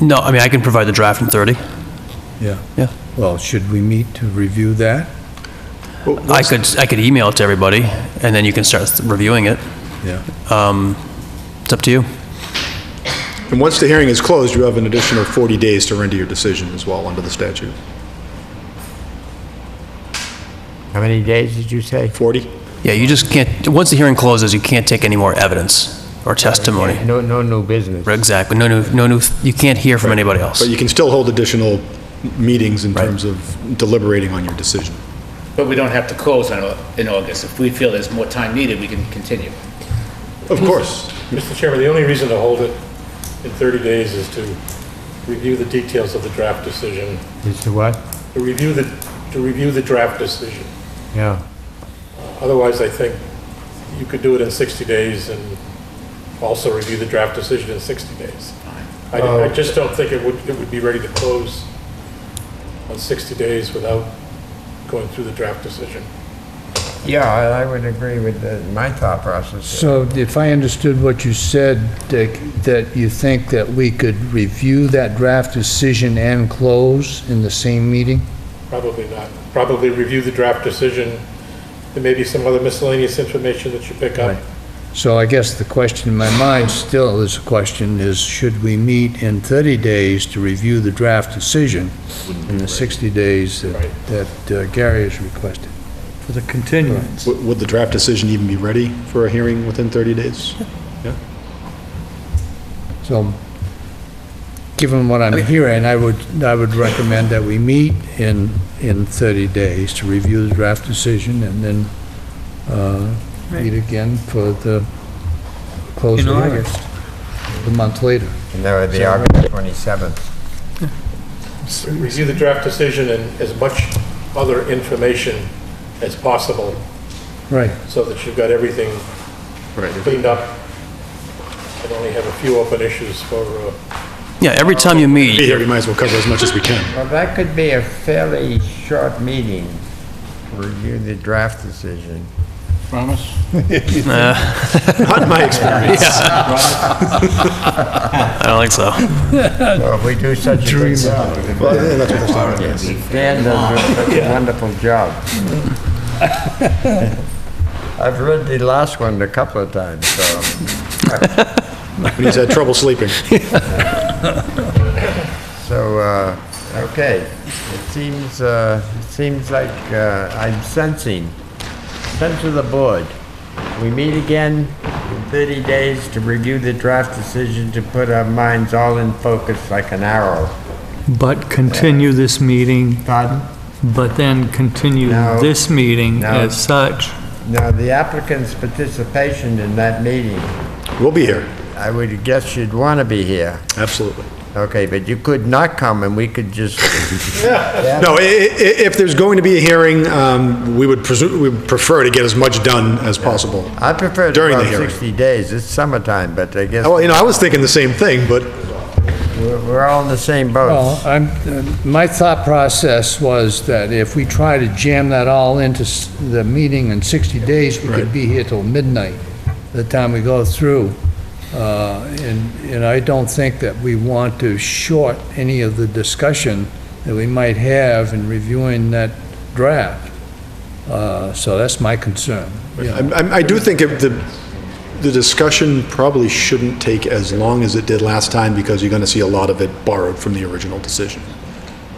No, I mean, I can provide the draft in 30, Yeah. yeah. Well, should we meet to review that? I could, I could email it to everybody, and then you can start reviewing it. Yeah. It's up to you. And once the hearing is closed, you have an additional 40 days to render your decision as well under the statute. How many days did you say? 40? Yeah, you just can't, once the hearing closes, you can't take any more evidence or testimony. No, no new business. Right, Exactly, no new, no new, you can't hear from anybody else. But you can still hold additional meetings in terms of deliberating on your decision. But we don't have to close on, in August. If we feel there's more time needed, we can continue. Of Mm-hmm. course. Mr. Chairman, the only reason to hold it in 30 days is to review the details of the draft decision, Is to what? to review the, to review the draft decision. Yeah. Otherwise, I think you could do it in 60 days and also review the draft decision in 60 days. I I just don't think it would, it would be ready to close on 60 days without going through the draft decision. Yeah, I I would agree with the- my thought process. So if I understood what you said, Dick, that you think that we could review that draft decision and close in the same meeting? Probably not. Probably review the draft decision. There may be some other miscellaneous information that you pick up. So I guess the question in my mind still is a question is, should we meet in 30 days to review the draft decision in the 60 days that Right. that uh, Gary has requested? For the continuance. Would would the draft decision even be ready for a hearing within 30 days? So, given what I'm hearing, I would, I would recommend that we meet in, in 30 days to review the draft decision and then uh, meet again for the close of In the hearing. August. A month later. And that would be August 27th. Review the draft decision and as much other information as possible Right. so that you've got everything cleaned up and only have a few open issues for, uh, Yeah, every time you Be meet, here, we might as well cover as much as we can. Well, that could be a fairly short meeting to review the draft decision. Not in my experience. I don't think so. So if we do such a good job. Well, yeah, that's what I'm saying. Yes, Dan does a- such a wonderful job. I've read the last one a couple of times, so. When he's had trouble sleeping. So, uh, okay, it seems, uh, it seems like uh, I'm sensing, sense of the board. We meet again in 30 days to review the draft decision to put our minds all in focus like an arrow. But continue this meeting, Pardon? but then continue No. this meeting No. as such. Now, the applicant's participation in that meeting, We'll be here, I would guess you'd want to be here. absolutely. Okay, but you could not come and we could just, No, i- i- i- if there's going to be a hearing, um, we would presume, we would prefer to get as much done as possible. I prefer to During the go hearing. Oh, 60 days. It's summertime, but I guess Well, you know, I was thinking the same thing, but we're we're all in the same boat. Well, I'm, uh, my thought process was that if we try to jam that all into s- the meeting in 60 days, we could be here till midnight, the time we go through. Uh, And, and I don't think that we want to short any of the discussion that we might have in reviewing that draft. Uh, So that's my concern. I'm- I'm- I do think if the, the discussion probably shouldn't take as long as it did last time because you're going to see a lot of it borrowed from the original decision.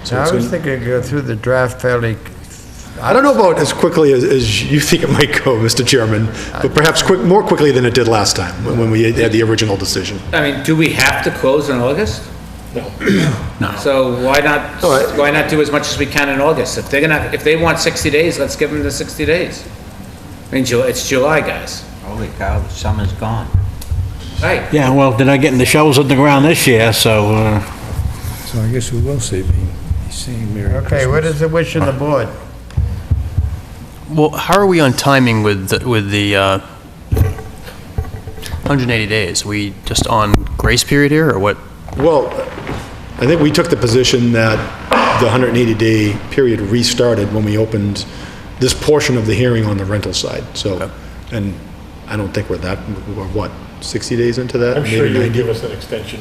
So I it's was gonna- thinking go through the draft fairly, I don't know about as quickly as, as you think it might go, Mr. Chairman, but perhaps quick, more quickly than it did last time when when we had the original decision. I mean, do we have to close in August? No. So why not, All right. why not do as much as we can in August? If they're gonna, if they want 60 days, let's give them the 60 days. I mean, Ju- it's July, guys. Holy cow, the summer's gone. Right. Yeah, well, they're not getting the shovels in the ground this year, so, uh, So I guess we will see, seeing Merry Christmas. okay, what is the wish of the board? Well, how are we on timing with, the- with the uh, 180 days? We just on grace period here, or what? Well, I think we took the position that the 180-day period restarted when we opened this portion of the hearing on the rental side, so, and I don't think we're that, we're what, 60 days into that? I'm sure Maybe you would 90? give us an extension.